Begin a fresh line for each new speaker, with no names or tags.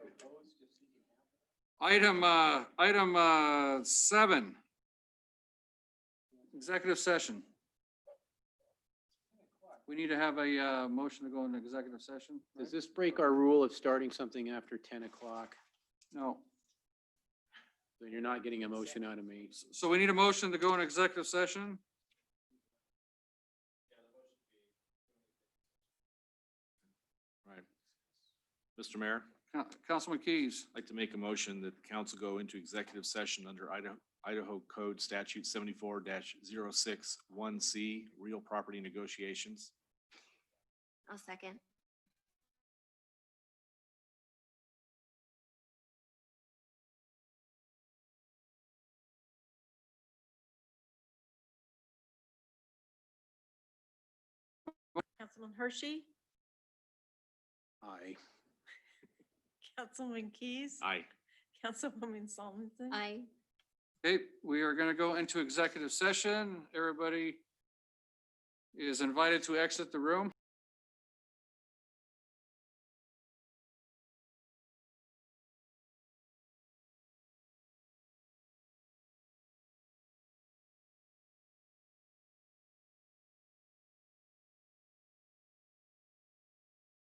Item, uh, item, uh, seven. Executive session. We need to have a, uh, motion to go into executive session. right?
Does this break our rule of starting something after ten o'clock?
No.
Then you're not getting a motion out of me.
S- So we need a motion to go into executive session?
Right. Mr. Mayor,
Coun- Councilman Keys,
I'd like to make a motion that the council go into executive session under Idaho, Idaho Code Statute seventy-four 61 C, real property negotiations.
I'll second.
Councilman Hershey,
Aye.
Councilman Keys.
Aye.
Councilwoman Solomonson.
Aye.
okay, we are gonna go into executive session. Everybody is invited to exit the room.